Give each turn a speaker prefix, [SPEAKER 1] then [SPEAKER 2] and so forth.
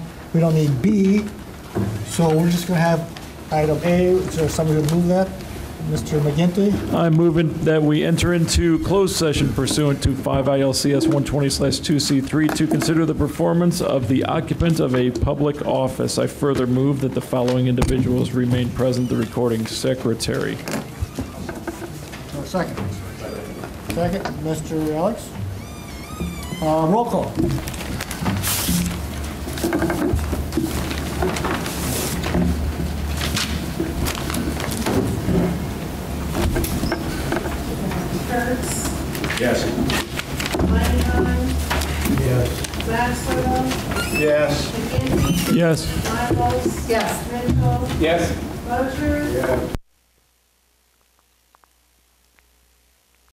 [SPEAKER 1] We don't need B, so we're just going to have item A. Is there somebody to move that? Mr. McGinty?
[SPEAKER 2] I'm moving that we enter into closed session pursuant to 5 ILCS 120/2C3 to consider the performance of the occupant of a public office. I further move that the following individuals remain present, the recording secretary.
[SPEAKER 1] Or Second. Second, Mr. Alex? Uh, Roll call.
[SPEAKER 3] Kurtz,
[SPEAKER 4] Yes.
[SPEAKER 3] Monahan,
[SPEAKER 4] Yes.
[SPEAKER 3] Maxwell,
[SPEAKER 4] Yes.
[SPEAKER 3] McGinty,
[SPEAKER 2] Yes.
[SPEAKER 3] Michaels. Yes. Mitchell,
[SPEAKER 4] Yes.
[SPEAKER 3] Bosher.